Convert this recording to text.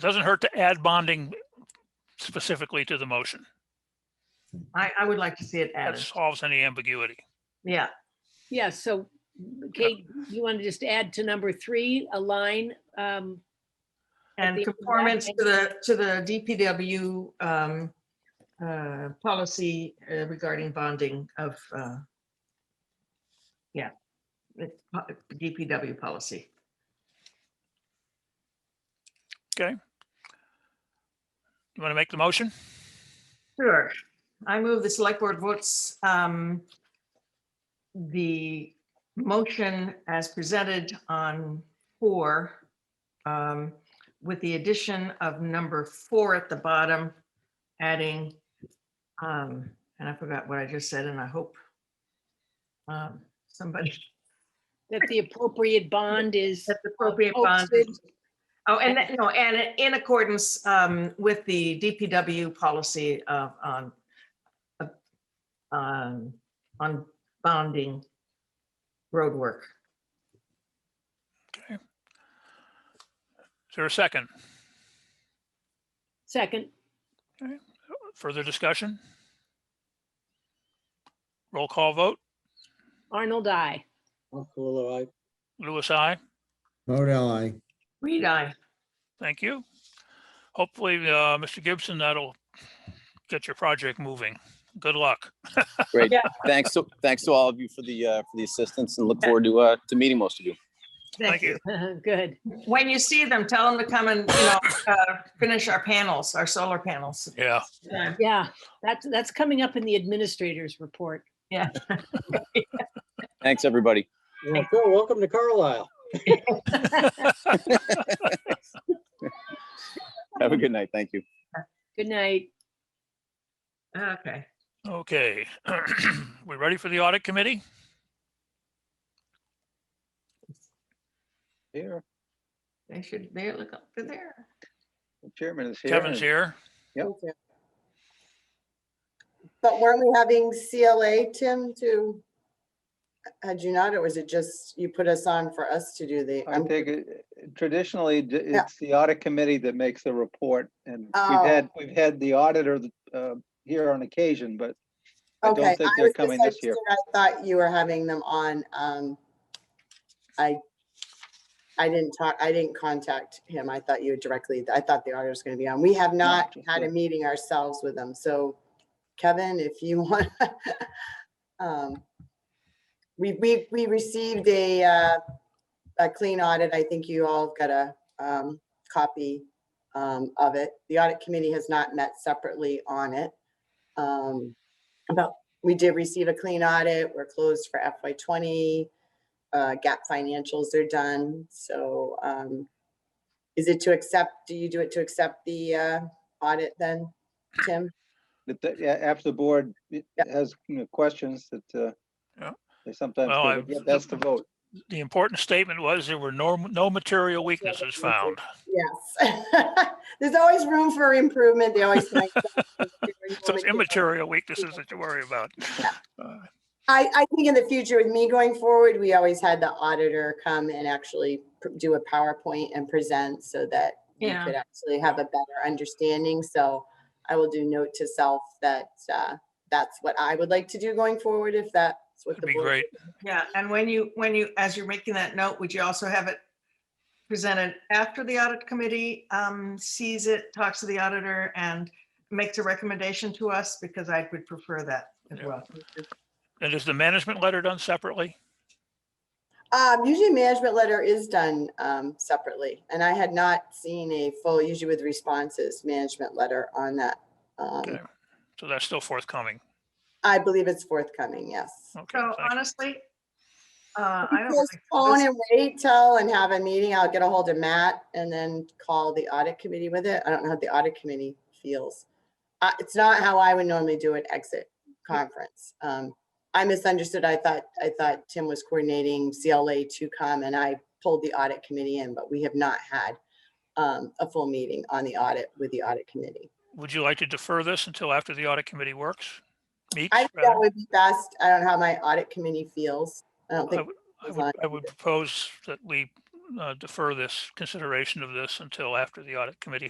it doesn't hurt to add bonding specifically to the motion. I, I would like to see it That added. solves any ambiguity. Yeah, Yeah, so Kate, Uh, you want to just add to number three, a line, um, and the- conformance to the, to the DPW um, uh, policy uh, regarding bonding of, uh, yeah, the uh, po- DPW policy. You want to make the motion? Sure. I move the select board votes um, the motion as presented on four um, with the addition of number four at the bottom, adding, um, and I forgot what I just said, and I hope um, somebody that the appropriate bond is. that's appropriate bond. Oh, and, that- no, and in accordance um, with the DPW policy of, on, of, um, on bonding roadwork. Is there a second? Second, Further discussion? Roll call vote. Arnold, I. Uncle, I, Louis, I. Modell, I. Reed, I, Thank you. Hopefully, uh, Mr. Gibson, that'll get your project moving. Good luck. great. Yeah. Thanks, to thanks to all of you for the, uh, for the assistance and look forward to, uh, to meeting most of you. Thank thank you. you. Good. When you see them, tell them to come and, you know, uh, finish our panels, our solar panels. Yeah. Yeah. Yeah, that's, that's coming up in the administrator's report. Thanks, everybody. Well, cool. Welcome to Carlisle. Have a Mm-hmm. good night. Thank you. Good night. Okay, Okay. We ready for the audit committee? Here, they should, they look up to there. the chairman is here. Kevin's here. Yep. Thank you. But weren't we having CLA, Tim, to, had you not, or was it just you put us on for us to do the? I um, I'm- think it- traditionally, d- Yeah. it's the audit committee that makes the report and Oh. we've had, we've had the auditor uh, here on occasion, but I Okay, don't think I they're was coming this year. misunderstood. I thought you were having them on. um, I, I didn't talk, I didn't contact him. I thought you directly, I thought the auditor's going to be on. We have not just had a you. meeting ourselves with them. So Kevin, if you want. um, We, we, we received a, uh, a clean audit. I think you all got a um, copy um, of it. The audit committee has not met separately on it. Um, About, we did receive a clean audit. We're closed for FY twenty. Uh, gap financials are done, so, um, is it to accept, do you do it to accept the, uh, audit then, Tim? That, that- yeah, after the board it has you know, questions that uh, Yeah. they sometimes Well, I- forget, that's the vote. The important statement was there were no, no material weaknesses found. Yes. There's always room for improvement. They always. find something to do. So it's immaterial weaknesses that you worry about. Uh, I, I think in the future with me going forward, we always had the auditor come and actually pr- do a PowerPoint and present so that we Yeah. could actually have a better understanding. So I will do note to self that, uh, that's what I would like to do going forward if that's what It'd the be board. great. Yeah, and when you, when you, as you're making that note, would you also have it presented after the audit committee um, sees it, talks to the auditor and makes a recommendation to us? Because I would prefer that as Yeah. well. And is the management letter done separately? Um, usually management letter is done, um, separately and I had not seen a full, usually with responses, management letter on that. Um, Okay. So that's still forthcoming. I believe it's forthcoming, yes. Okay. So thank you. honestly, uh, I don't. think Postpone this- and wait till and have a meeting. I'll get a hold of Matt and then call the audit committee with it. I don't know how the audit committee feels. Uh, it's not how I would normally do an exit conference. Um, I misunderstood. I thought, I thought Tim was coordinating CLA to come and I pulled the audit committee in, but we have not had um, a full meeting on the audit with the audit committee. Would you like to defer this until after the audit committee works? Meets? I think rather? that would be best. I don't know how my audit committee feels. I don't I think, would- I was would, on I would propose that we uh, defer this consideration of this until after the audit committee